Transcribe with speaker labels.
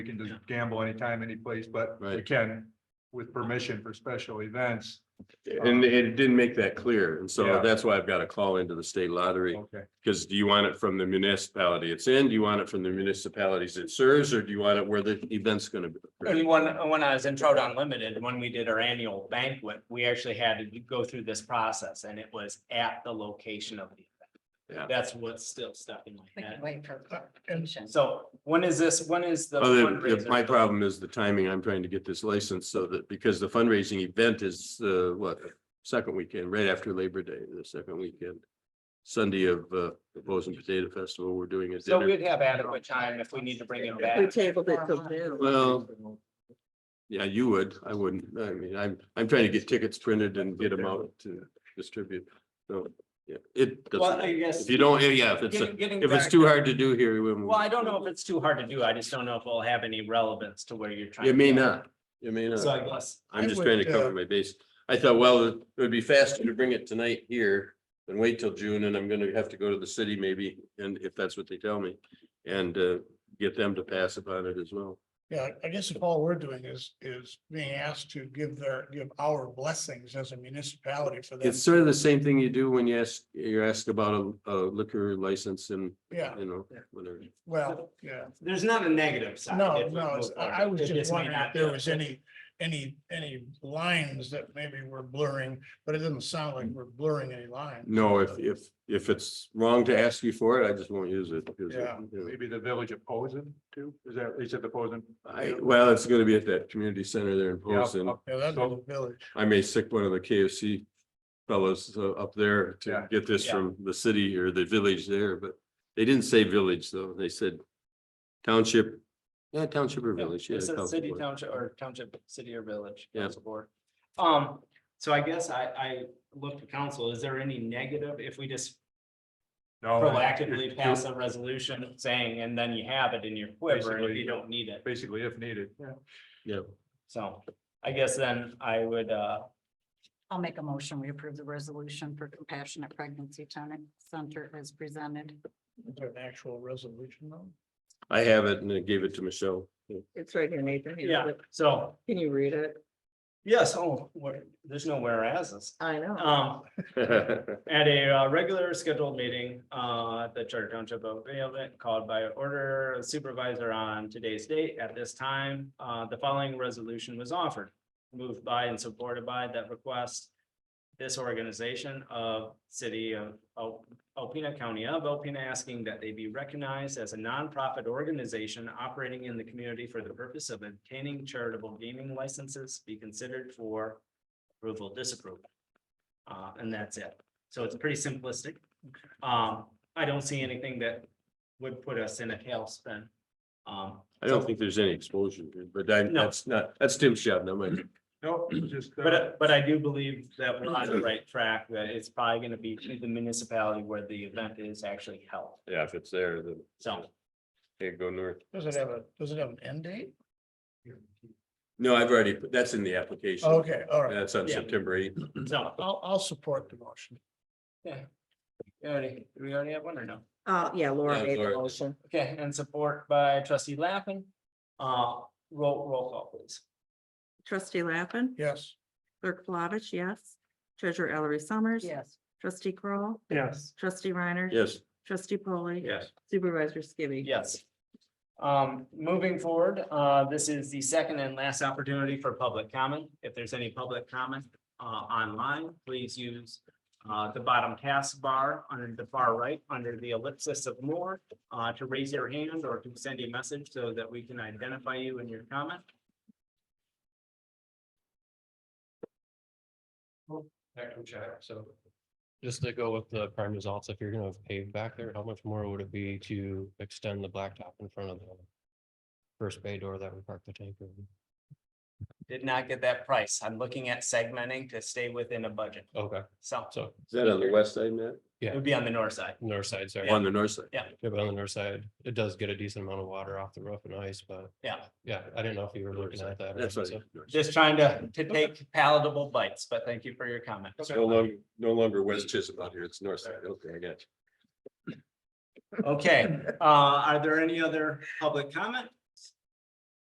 Speaker 1: We can just gamble anytime, anyplace, but we
Speaker 2: Right.
Speaker 1: can with permission for special events.
Speaker 2: And it didn't make that clear. And so
Speaker 1: Um, Yeah.
Speaker 2: that's why I've got to call into the state lottery.
Speaker 1: Okay,
Speaker 2: Because do you want it from the municipality it's in? Do you want it from the municipalities it serves? Or do you want it where the event's going to be?
Speaker 3: And when, when I was in Trout Unlimited, when we did our annual banquet, we actually had to go through this process and it was at the location of the
Speaker 2: Yeah.
Speaker 3: event. That's what's still stuck in my
Speaker 4: We can
Speaker 3: head.
Speaker 4: wait for clarification.
Speaker 3: So when is this, when is the
Speaker 2: Other, if my
Speaker 3: fundraiser?
Speaker 2: problem is Oh, the timing, I'm trying to get this license so that, because the fundraising event is, uh, what, second weekend, right after Labor Day, the second weekend. Sunday of, uh, the Bozeman Potato Festival, we're doing a
Speaker 3: So
Speaker 2: dinner.
Speaker 3: we'd have adequate time if we need to bring it
Speaker 5: We
Speaker 3: back.
Speaker 5: tabled it
Speaker 4: uh,
Speaker 5: till June.
Speaker 2: Well, yeah, you would. I wouldn't. I mean, I'm, I'm trying to get tickets printed and get them out to distribute. So, yeah, it
Speaker 3: Well,
Speaker 2: doesn't,
Speaker 3: I guess.
Speaker 2: if you don't, yeah, if it's, a-
Speaker 3: Getting- getting
Speaker 2: if it's
Speaker 3: back-
Speaker 2: too hard to do here, we won't-
Speaker 3: Well, I don't know if it's too hard to do. I just don't know if it'll have any relevance to where you're trying.
Speaker 2: It may
Speaker 3: to go.
Speaker 2: not. It may
Speaker 3: So I
Speaker 2: not.
Speaker 3: guess,
Speaker 2: I'm
Speaker 6: I
Speaker 2: just
Speaker 6: would,
Speaker 2: trying to cover
Speaker 6: uh,
Speaker 2: my base. I thought, well, it would be faster to bring it tonight here than wait till June and I'm gonna have to go to the city maybe, and if that's what they tell me. And, uh, get them to pass upon it as well.
Speaker 6: Yeah, I guess if all we're doing is, is being asked to give their, give our blessings as a municipality for them.
Speaker 2: It's sort of the same thing you do when you ask, you're asked about a, a liquor license and,
Speaker 6: Yeah,
Speaker 2: you know, whatever.
Speaker 6: well, yeah.
Speaker 3: there's not a negative side.
Speaker 6: No,
Speaker 3: if we
Speaker 6: no,
Speaker 3: move
Speaker 6: it's- I
Speaker 3: forward.
Speaker 6: I was
Speaker 3: It
Speaker 6: just
Speaker 3: may
Speaker 6: wondering if
Speaker 3: not
Speaker 6: there
Speaker 3: be.
Speaker 6: was any, any, any lines that maybe we're blurring, but it doesn't sound like we're blurring any lines.
Speaker 2: No, if, if, if it's wrong to ask you for it, I just won't use it. because,
Speaker 6: Yeah.
Speaker 2: you know,
Speaker 1: maybe the village of Posen too, is that, is it the Posen?
Speaker 2: I, well, it's gonna be at that community center there in Poston.
Speaker 1: up-
Speaker 6: Yeah, that's
Speaker 1: So-
Speaker 6: the village.
Speaker 2: I may sick one of the KFC fellows uh, up there
Speaker 1: Yeah.
Speaker 2: to get this
Speaker 3: Yeah.
Speaker 2: from the city or the village there, but they didn't say village though. They said township, yeah, township or
Speaker 3: Yeah,
Speaker 2: village. yeah,
Speaker 3: It's a
Speaker 2: township
Speaker 3: city,
Speaker 2: board.
Speaker 3: township, or township, city or village,
Speaker 2: Yeah.
Speaker 3: council board. Um, so I guess I, I look to council, is there any negative if we just
Speaker 1: No,
Speaker 2: Oh,
Speaker 3: proactively
Speaker 1: it-
Speaker 3: pass a resolution saying, and then you have it in your quiver, and if
Speaker 1: Basically.
Speaker 3: you don't need it,
Speaker 1: Basically, if needed, yeah.
Speaker 2: Yeah,
Speaker 3: so I guess then I would, uh,
Speaker 4: I'll make a motion. We approve the resolution for compassionate pregnancy Tonic center as presented.
Speaker 6: Is there an actual resolution though?
Speaker 2: I have it and I gave it to Michelle.
Speaker 5: It's right here, Nathan. You
Speaker 3: yeah,
Speaker 5: have it.
Speaker 3: so,
Speaker 5: Can you read it?
Speaker 3: yes, oh, where- there's no whereas.
Speaker 5: I know.
Speaker 3: Um, At a uh, regular scheduled meeting, uh, at the Charter Township of Vailville called by order of supervisor on today's date at this time, uh, the following resolution was offered. Moved by and supported by that request. This organization of city of Al- Alpena County of Alpena asking that they be recognized as a nonprofit organization operating in the community for the purpose of obtaining charitable gaming licenses be considered for approval, disapproval. Uh, and that's it. So it's pretty simplistic. Um, I don't see anything that would put us in a tailspin. Um,
Speaker 2: I don't think there's any exposure, but I,
Speaker 3: No.
Speaker 2: that's not, that's Tim's shop, not mine.
Speaker 1: No, just. uh,
Speaker 3: but, but I do believe that we're on the right track, that it's probably gonna be to the municipality where the event is actually held.
Speaker 2: Yeah, if it's there, then
Speaker 3: So,
Speaker 2: it go north.
Speaker 6: Does it have a, does it have an end date?
Speaker 2: No, I've already, put that's in the application.
Speaker 6: Okay, all right.
Speaker 2: That's on
Speaker 3: Yeah.
Speaker 2: September eighth.
Speaker 3: so.
Speaker 6: I'll, I'll support the motion.
Speaker 3: We already, do we already have one or no?
Speaker 5: Uh, yeah, Laura
Speaker 2: Yeah,
Speaker 5: made the
Speaker 2: Laura.
Speaker 5: motion.
Speaker 3: Okay, and support by trustee Lappin. Uh, roll, roll call please.
Speaker 5: Trustee Lappin,
Speaker 6: Yes.
Speaker 5: clerk Flavich, yes. Treasurer Ellery Summers.
Speaker 4: Yes.
Speaker 5: Trustee Kroll,
Speaker 3: Yes.
Speaker 5: trustee Reiner.
Speaker 2: Yes.
Speaker 5: Trustee Polly.
Speaker 2: Yes.
Speaker 5: Supervisor Skibby.
Speaker 3: Yes. Um, moving forward, uh, this is the second and last opportunity for public comment. If there's any public comment, uh, online, please use. Uh, the bottom taskbar under the far right, under the ellipsis of more, uh, to raise your hand or to send a message so that we can identify you in your comment.
Speaker 7: Echo check, so. Just to go with the prime results, if you're gonna have paved back there, how much more would it be to extend the blacktop in front of the? First bay door that we parked the tank in?
Speaker 3: Did not get that price. I'm looking at segmenting to stay within a budget.
Speaker 7: Okay,
Speaker 3: So
Speaker 7: so
Speaker 2: Is that on the west side, Matt?
Speaker 3: it would be on the north side.
Speaker 7: north side, sorry.
Speaker 2: On the north side.
Speaker 7: Yeah, but on the north side, it does get a decent amount of water off the roof and ice, but.
Speaker 3: Yeah.
Speaker 7: Yeah, I didn't know if you were looking at that. or
Speaker 2: That's
Speaker 7: not,
Speaker 2: right.
Speaker 7: so-
Speaker 3: Just trying to, to take palatable bites, but thank you for your comment.
Speaker 2: It's no longer, no longer West Chisholm out here. It's north side. Okay, I got you.
Speaker 3: Okay, uh, are there any other public comment?